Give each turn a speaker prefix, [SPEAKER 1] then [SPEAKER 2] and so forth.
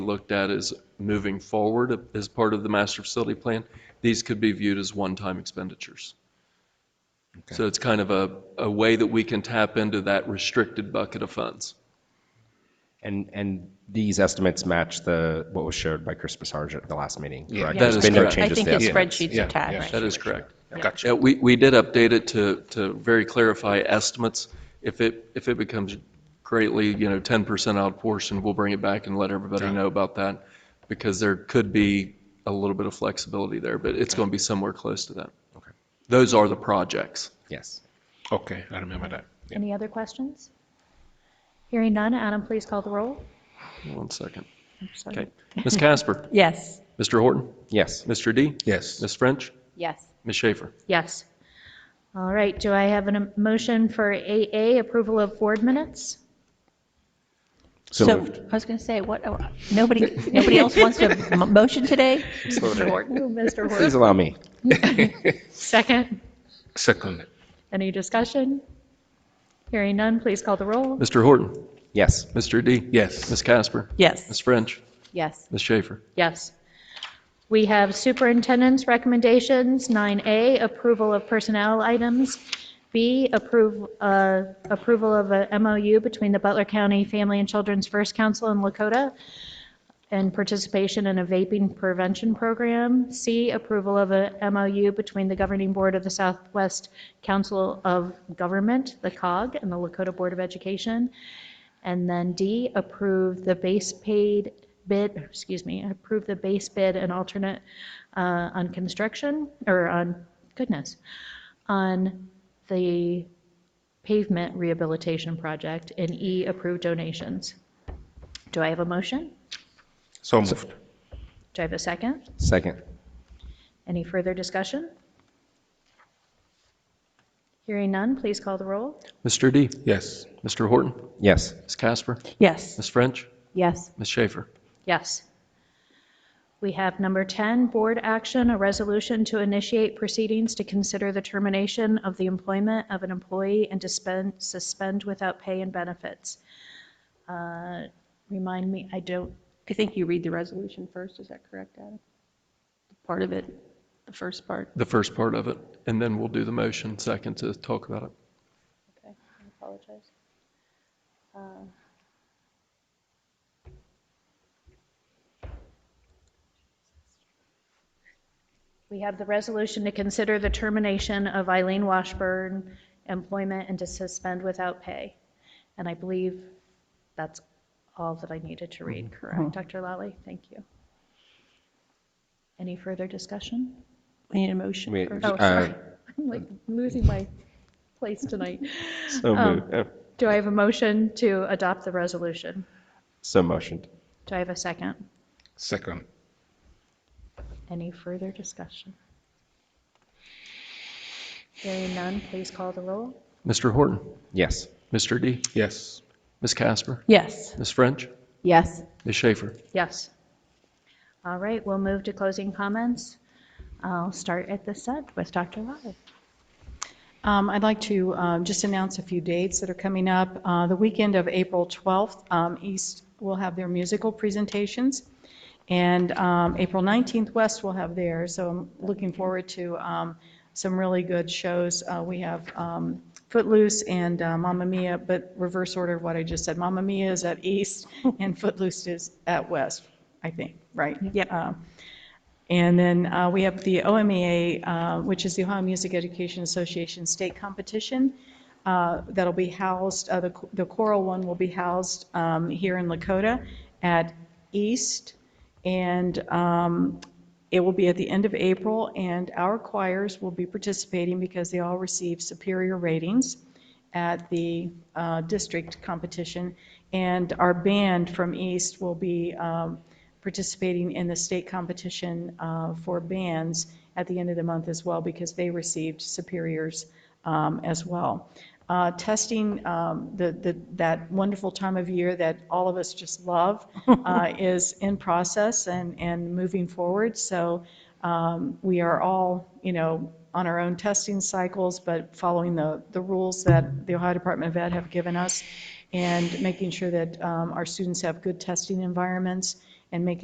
[SPEAKER 1] looked at as moving forward as part of the master facility plan, these could be viewed as one-time expenditures. So it's kind of a, a way that we can tap into that restricted bucket of funds.
[SPEAKER 2] And, and these estimates match the, what was shared by Chris Passarge at the last meeting,
[SPEAKER 1] That
[SPEAKER 2] correct? There's
[SPEAKER 1] is
[SPEAKER 2] been no
[SPEAKER 1] correct.
[SPEAKER 2] changes to
[SPEAKER 3] I
[SPEAKER 2] the
[SPEAKER 3] think his
[SPEAKER 2] estimate.
[SPEAKER 3] spreadsheet's
[SPEAKER 4] Yeah,
[SPEAKER 3] attached.
[SPEAKER 1] That is correct.
[SPEAKER 2] Gotcha.
[SPEAKER 1] Yeah, we, we did update it to, to very clarify estimates. If it, if it becomes greatly, you know, 10% out of portion, we'll bring it back and let everybody know about that because there could be a little bit of flexibility there, but it's going to be somewhere close to that. Those are the projects.
[SPEAKER 2] Yes.
[SPEAKER 4] Okay, I remember that.
[SPEAKER 5] Any other questions? Hearing none, Adam, please call the roll.
[SPEAKER 1] One second.
[SPEAKER 5] I'm sorry.
[SPEAKER 1] Okay. Ms. Casper,
[SPEAKER 3] Yes.
[SPEAKER 1] Mr. Horton,
[SPEAKER 2] Yes.
[SPEAKER 1] Mr. D,
[SPEAKER 4] Yes.
[SPEAKER 1] Ms. French,
[SPEAKER 3] Yes.
[SPEAKER 1] Ms. Schaefer.
[SPEAKER 5] Yes. All right, do I have a motion for AA, approval of board minutes?
[SPEAKER 3] So I was going to say, what, oh, nobody, nobody else wants to m- motion today? Mr. Horton?
[SPEAKER 5] Ooh, Mr.
[SPEAKER 2] Please
[SPEAKER 5] Horton,
[SPEAKER 2] allow me.
[SPEAKER 5] second.
[SPEAKER 4] Second.
[SPEAKER 5] Any discussion? Hearing none, please call the roll.
[SPEAKER 1] Mr. Horton,
[SPEAKER 2] Yes.
[SPEAKER 1] Mr. D.
[SPEAKER 4] Yes.
[SPEAKER 1] Ms. Casper, Ms.
[SPEAKER 3] Yes.
[SPEAKER 1] French,
[SPEAKER 3] Yes.
[SPEAKER 1] Ms. Schaefer.
[SPEAKER 5] Yes. We have superintendent's recommendations, 9A, approval of personnel items, B, approve, uh, approval of a MOU between the Butler County Family and Children's First Council and Lakota, and participation in a vaping prevention program, C, approval of a MOU between the governing board of the Southwest Council of Government, the COG, and the Lakota Board of Education, and then D, approve the base paid bid, excuse me, approve the base bid and alternate uh, on construction, or on, goodness, on the pavement rehabilitation project, and E, approve donations. Do I have a motion?
[SPEAKER 4] So moved.
[SPEAKER 5] Do I have a second?
[SPEAKER 2] Second.
[SPEAKER 5] Any further discussion? Hearing none, please call the roll.
[SPEAKER 1] Mr. D,
[SPEAKER 4] Yes.
[SPEAKER 1] Mr. Horton,
[SPEAKER 2] Yes.
[SPEAKER 1] Ms. Casper,
[SPEAKER 3] Yes.
[SPEAKER 1] Ms. French,
[SPEAKER 3] Yes.
[SPEAKER 1] Ms. Schaefer.
[SPEAKER 5] Yes. We have number 10, board action, a resolution to initiate proceedings to consider the termination of the employment of an employee and to spend, suspend without pay and benefits. Uh, Remind me, I don't,
[SPEAKER 6] I think you read the resolution first, is that correct, Adam? Part of it, the first part.
[SPEAKER 1] the first part of it, and then we'll do the motion second to talk about it.
[SPEAKER 5] we have the resolution to consider the termination of Eileen Washburn employment and to suspend without pay. And I believe that's all that I needed to read, correct? Dr. Lally, thank you. Any further discussion?
[SPEAKER 6] We need a motion.
[SPEAKER 2] We-
[SPEAKER 6] first.
[SPEAKER 5] Oh,
[SPEAKER 2] Uh,
[SPEAKER 5] sorry. I'm like losing my place tonight.
[SPEAKER 2] So
[SPEAKER 3] Oh.
[SPEAKER 2] moved. Uh,
[SPEAKER 5] Do I have a motion to adopt the resolution?
[SPEAKER 2] So motioned.
[SPEAKER 5] Do I have a second?
[SPEAKER 4] Second.
[SPEAKER 5] Any further discussion? Hearing none, please call the roll.
[SPEAKER 1] Mr. Horton,
[SPEAKER 2] Yes.
[SPEAKER 1] Mr. D,
[SPEAKER 4] Yes.
[SPEAKER 1] Ms. Casper,
[SPEAKER 3] Yes.
[SPEAKER 1] Ms. French,
[SPEAKER 3] Yes.
[SPEAKER 1] Ms. Schaefer.
[SPEAKER 5] Yes. All right, we'll move to closing comments. I'll start at this end with Dr. Lally.
[SPEAKER 7] Um, I'd like to um, just announce a few dates that are coming up. Uh, The weekend of April 12th, um, East will have their musical presentations, and um, April 19th, West will have theirs, so I'm looking forward to um, some really good shows. Uh, We have um, Footloose and uh, Mamma Mia, but reverse order of what I just said. Mamma Mia is at East, and Footloose is at West, I think, right?
[SPEAKER 3] Yep.
[SPEAKER 7] Um, and then uh, we have the OMEA, uh, which is the Ohio Music Education Association State Competition. uh, That'll be housed, uh, the the choral one will be housed um, here in Lakota at East. And um, it will be at the end of April, and our choirs will be participating because they all receive superior ratings at the uh, district competition. And our band from East will be um, participating in the state competition uh, for bands at the end of the month as well, because they received superiors um, as well. Uh, Testing, um, the- the- that wonderful time of year that all of us just love, uh, is in process and and moving forward. So um, we are all, you know, on our own testing cycles, but following the, the rules that the Ohio Department of Ed have given us and making sure that um, our students have good testing environments and making